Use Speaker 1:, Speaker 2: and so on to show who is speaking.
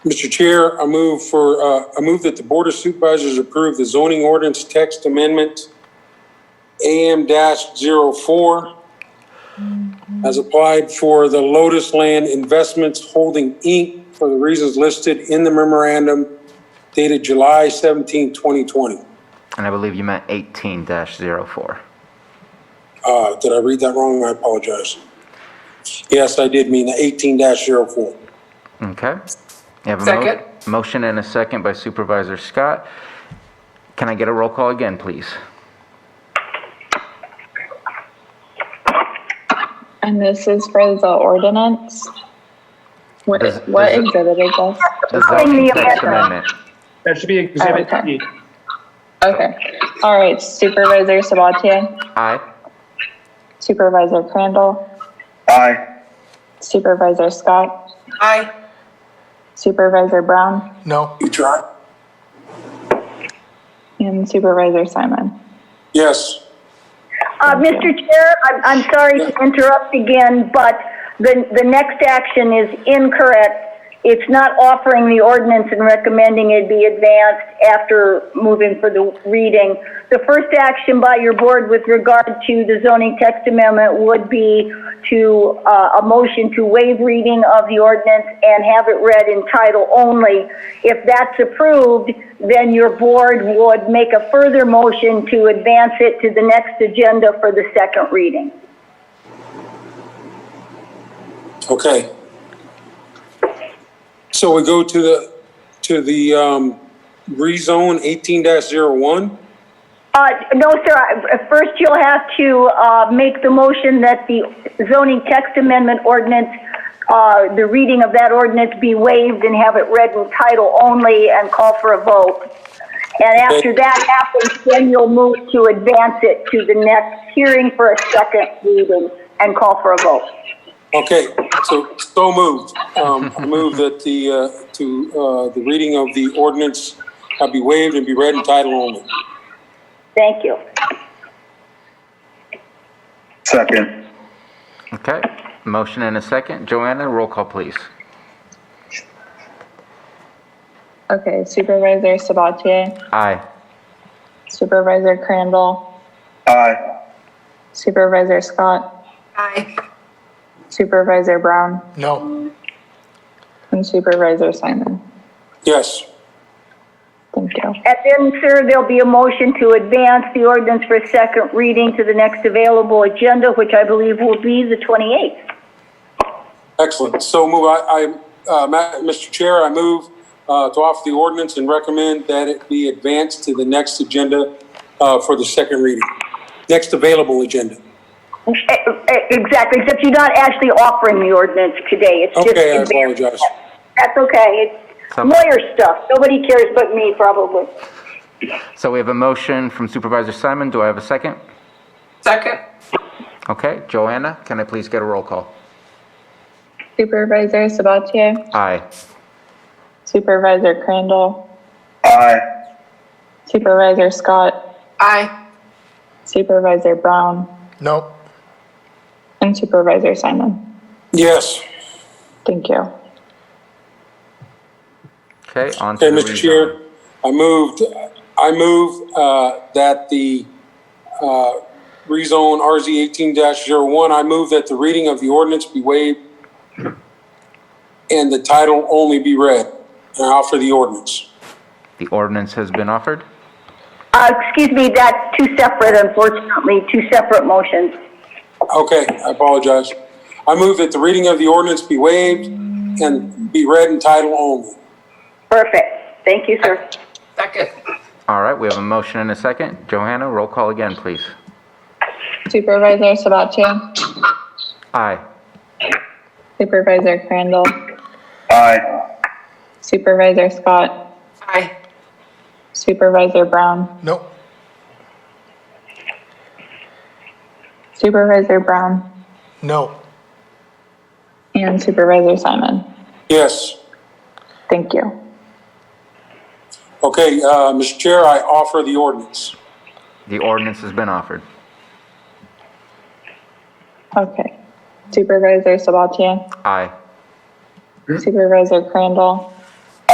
Speaker 1: Mr. Chair, I move for, uh, I move that the Board of Supervisors approve the zoning ordinance text amendment AM dash zero four as applied for the Lotus Land Investments Holding Inc. for the reasons listed in the memorandum dated July 17, 2020.
Speaker 2: And I believe you meant 18-04.
Speaker 1: Uh, did I read that wrong? I apologize. Yes, I did mean the eighteen 4
Speaker 2: Okay? You have a mo-
Speaker 3: Second.
Speaker 2: Motion and a second by Supervisor Scott. Can I get a roll call again, please?
Speaker 4: And this is for the ordinance? What,
Speaker 2: Does-
Speaker 4: what
Speaker 2: does it-
Speaker 4: exhibit is this?
Speaker 2: The zoning text amendment.
Speaker 5: That should be Exhibit
Speaker 4: Okay.
Speaker 5: E.
Speaker 4: Okay, all right, Supervisor Sabatier,
Speaker 2: Aye.
Speaker 4: Supervisor Crandall,
Speaker 6: Aye.
Speaker 4: Supervisor Scott,
Speaker 3: Aye.
Speaker 4: Supervisor Brown,
Speaker 7: No.
Speaker 1: You try?
Speaker 4: and Supervisor Simon.
Speaker 1: Yes.
Speaker 8: Uh, Mr. Chair, I'm, I'm sorry to interrupt again, but the, the next action is incorrect. It's not offering the ordinance and recommending it be advanced after moving for the reading. The first action by your board with regard to the zoning text amendment would be to, uh, a motion to waive reading of the ordinance and have it read in title only. If that's approved, then your board would make a further motion to advance it to the next agenda for the second reading.
Speaker 1: Okay. So we go to the, to the, um, rezone eighteen one
Speaker 8: Uh, no, sir, I- uh, first you'll have to, uh, make the motion that the zoning text amendment ordinance, uh, the reading of that ordinance be waived and have it read in title only and call for a vote. And after that happens, then you'll move to advance it to the next hearing for a second reading and call for a vote.
Speaker 1: Okay, so, so moved. Um, I move that the, uh, to, uh, the reading of the ordinance uh, be waived and be read in title only.
Speaker 8: Thank you.
Speaker 6: Second.
Speaker 2: Okay, motion and a second. Joanna, roll call, please.
Speaker 4: Okay, Supervisor Sabatier,
Speaker 2: Aye.
Speaker 4: Supervisor Crandall,
Speaker 6: Aye.
Speaker 4: Supervisor Scott,
Speaker 3: Aye.
Speaker 4: Supervisor Brown,
Speaker 7: No.
Speaker 4: and Supervisor Simon.
Speaker 1: Yes.
Speaker 4: Thank you.
Speaker 8: And then, sir, there'll be a motion to advance the ordinance for second reading to the next available agenda, which I believe will be the 28th.
Speaker 1: Excellent. So move, I, I, uh, Ma- Mr. Chair, I move, uh, to offer the ordinance and recommend that it be advanced to the next agenda, uh, for the second reading. Next available agenda.
Speaker 8: E- e- Exactly, except you're not actually offering the ordinance today. It's just
Speaker 1: Okay, I
Speaker 8: advancing it.
Speaker 1: apologize.
Speaker 8: That's okay. It's
Speaker 2: Some-
Speaker 8: lawyer stuff. Nobody cares but me, probably.
Speaker 2: So we have a motion from Supervisor Simon. Do I have a second?
Speaker 3: Second.
Speaker 2: Okay, Joanna, can I please get a roll call?
Speaker 4: Supervisor Sabatier,
Speaker 2: Aye.
Speaker 4: Supervisor Crandall,
Speaker 6: Aye.
Speaker 4: Supervisor Scott,
Speaker 3: Aye.
Speaker 4: Supervisor Brown,
Speaker 7: No.
Speaker 4: and Supervisor Simon.
Speaker 1: Yes.
Speaker 4: Thank you.
Speaker 2: Okay, on to
Speaker 1: Okay,
Speaker 2: the
Speaker 1: Mr. Chair,
Speaker 2: rezone.
Speaker 1: I moved, I move, uh, that the, uh, rezone RZ eighteen one I move that the reading of the ordinance be waived and the title only be read. And I offer the ordinance.
Speaker 2: The ordinance has been offered.
Speaker 8: Uh, excuse me, that's two separate, unfortunately, two separate motions.
Speaker 1: Okay, I apologize. I move that the reading of the ordinance be waived and be read in title only.
Speaker 8: Perfect. Thank you, sir.
Speaker 3: Second.
Speaker 2: All right, we have a motion and a second. Johanna, roll call again, please.
Speaker 4: Supervisor Sabatier,
Speaker 2: Aye.
Speaker 4: Supervisor Crandall,
Speaker 6: Aye.
Speaker 4: Supervisor Scott,
Speaker 3: Aye.
Speaker 4: Supervisor Brown,
Speaker 7: No.
Speaker 4: Supervisor Brown,
Speaker 7: No.
Speaker 4: and Supervisor Simon.
Speaker 1: Yes.
Speaker 4: Thank you.
Speaker 1: Okay, uh, Mr. Chair, I offer the ordinance.
Speaker 2: The ordinance has been offered.
Speaker 4: Okay. Supervisor Sabatier,
Speaker 2: Aye.
Speaker 4: Supervisor Crandall,